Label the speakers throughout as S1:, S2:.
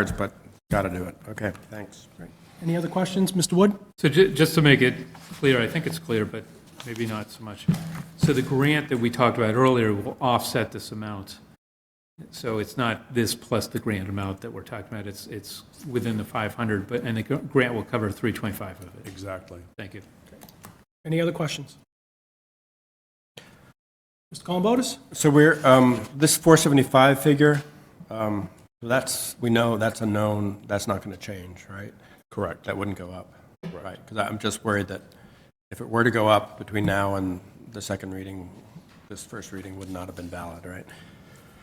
S1: words, but got to do it. Okay, thanks.
S2: Any other questions? Mr. Wood?
S3: So ju- just to make it clear, I think it's clear, but maybe not so much. So the grant that we talked about earlier will offset this amount. So it's not this plus the grant amount that we're talking about, it's, it's within the 500, but, and the gr- grant will cover 325 of it.
S4: Exactly.
S3: Thank you.
S2: Any other questions? Mr. Columbotus?
S1: So we're, um, this 475 figure, um, that's, we know that's a known, that's not going to change, right?
S4: Correct.
S1: That wouldn't go up, right? Because I'm just worried that if it were to go up between now and the second reading, this first reading would not have been valid, right?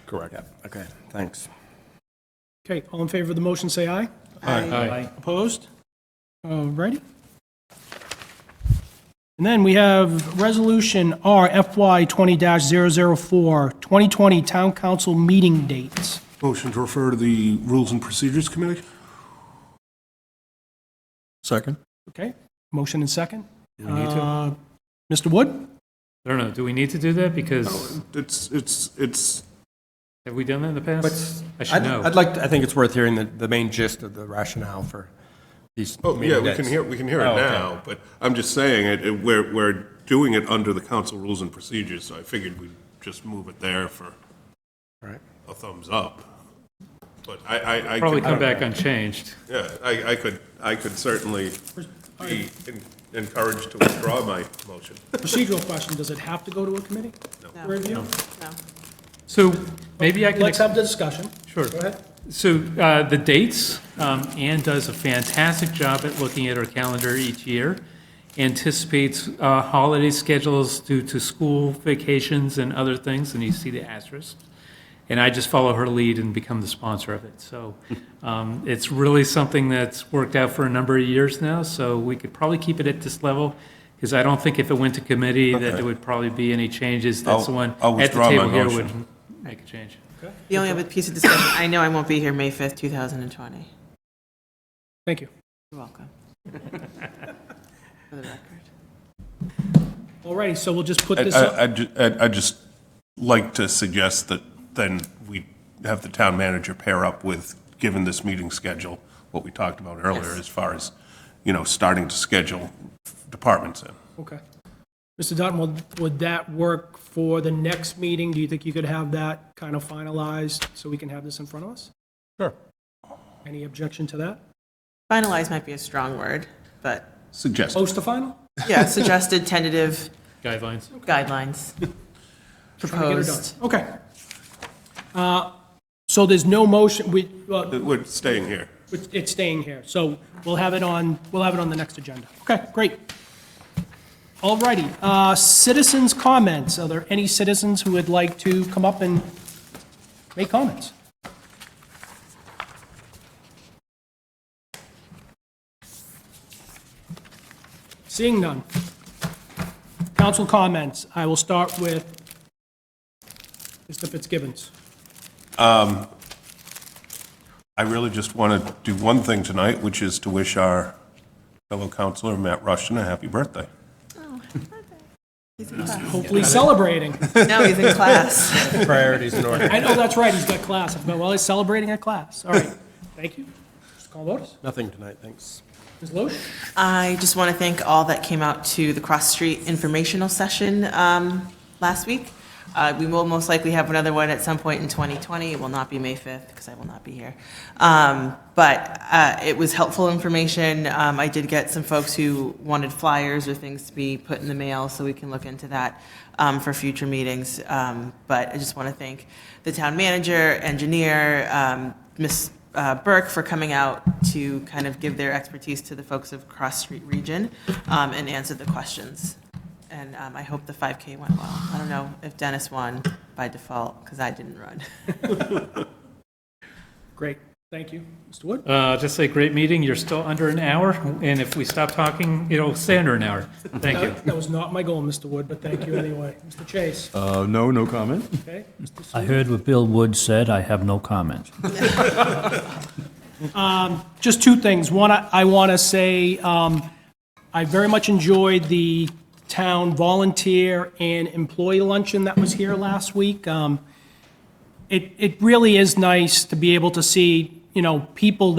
S4: Correct.
S1: Yeah, okay, thanks.
S2: Okay, all in favor of the motion, say aye.
S3: Aye.
S2: Opposed? All righty. And then we have Resolution R FY 20-004, 2020 Town Council Meeting Dates.
S5: Motion to refer to the Rules and Procedures Committee?
S4: Second?
S2: Okay, motion and second.
S3: Do we need to? I
S2: Uh, Mr. Wood?
S3: don't know, do we need to do that? Because
S5: It's, it's, it's,
S3: have we done that in the past? I should
S1: I'd-
S3: know.
S1: I'd like, to- I think it's worth hearing the, the main gist of the rationale for these.
S5: oh, yeah,
S1: meeting
S5: we can
S1: dates.
S5: hear, we can hear it
S1: Oh, okay.
S5: now, but I'm just saying, it, it- we're, we're doing it under the council rules and procedures, so I figured we'd just move it there for
S1: Right.
S5: a thumbs up. But I, I, I.
S3: Probably
S5: could-
S3: come back unchanged.
S5: Yeah, I, I could, I could certainly be en- encouraged to withdraw my motion.
S2: Procedural question, does it have to go to a committee? for Review?
S3: So maybe I can.
S2: Let's have the discussion.
S3: Sure.
S2: Go ahead.
S3: So uh, the dates, um, Ann does a fantastic job at looking at her calendar each year, anticipates uh, holiday schedules due to school vacations and other things, and you see the asterisk. And I just follow her lead and become the sponsor of it. So um, it's really something that's worked out for a number of years now, so we could probably keep it at this level, because I don't think if it went to committee that there would probably be any changes. That's the
S4: I'll-
S3: one
S4: I'll
S3: at the
S4: withdraw my
S3: table here would
S4: motion.
S3: make a change.
S6: The only other piece of discussion, I know I won't be here May 5th, 2020.
S2: Thank you.
S6: You're welcome. For the record.
S2: All righty, so we'll just put
S5: I,
S2: this up.
S5: I- I ju- I- I just like to suggest that then we have the town manager pair up with, given this meeting schedule, what we talked about earlier,
S6: Yes.
S5: as far as, you know, starting to schedule departments in.
S2: Okay. Mr. Dutton, would, would that work for the next meeting? Do you think you could have that kind of finalized so we can have this in front of us?
S4: Sure.
S2: Any objection to that?
S6: Finalize might be a strong word, but
S5: Suggest.
S2: Close to final?
S6: yeah, suggested tentative
S3: Guidelines?
S6: guidelines
S2: Trying to get it done.
S6: proposed.
S2: Okay. Uh, So there's no motion, we, uh, well,
S5: We're staying here.
S2: it's it's staying here. So we'll have it on, we'll have it on the next agenda. Okay, great. All righty, uh, citizens' comments. Are there any citizens who would like to come up and make comments? Seeing none. Council comments. I will start with Mr. Fitzgibbons.
S5: I really just want to do one thing tonight, which is to wish our fellow counselor, Matt Rushton, a happy birthday.
S2: Hopefully celebrating.
S6: No, he's in class.
S1: Priorities in order.
S2: I know, that's right, he's got class. I forgot, Well, he's celebrating a class. All right, thank you. Mr. Columbotus?
S1: Nothing tonight, thanks.
S2: Ms. Loesch?
S6: I just want to thank all that came out to the Cross Street informational session um, last week. Uh, We will most likely have another one at some point in 2020. It will not be May 5th because I will not be here. Um, But uh, it was helpful information. Um, I did get some folks who wanted flyers or things to be put in the mail, so we can look into that um, for future meetings. Um, But I just want to thank the town manager, engineer, um, Ms. uh, Burke for coming out to kind of give their expertise to the folks of Cross Street Region um, and answer the questions. And um, I hope the 5K went well. I don't know if Dennis won by default, because I didn't run.
S2: Great, thank you. Mr. Wood?
S3: Uh, Just say, great meeting, you're still under an hour, and if we stop talking, it'll stay under an hour. Thank you.
S2: That that was not my goal, Mr. Wood, but thank you anyway. Mr. Chase?
S4: Uh, no, no comment.
S2: Okay.
S7: I heard what Bill Wood said, I have no comment.
S2: Just two things. One, I I want to say, um, I very much enjoyed the town volunteer and employee luncheon that was here last week. Um, It, it really is nice to be able to see, you know, people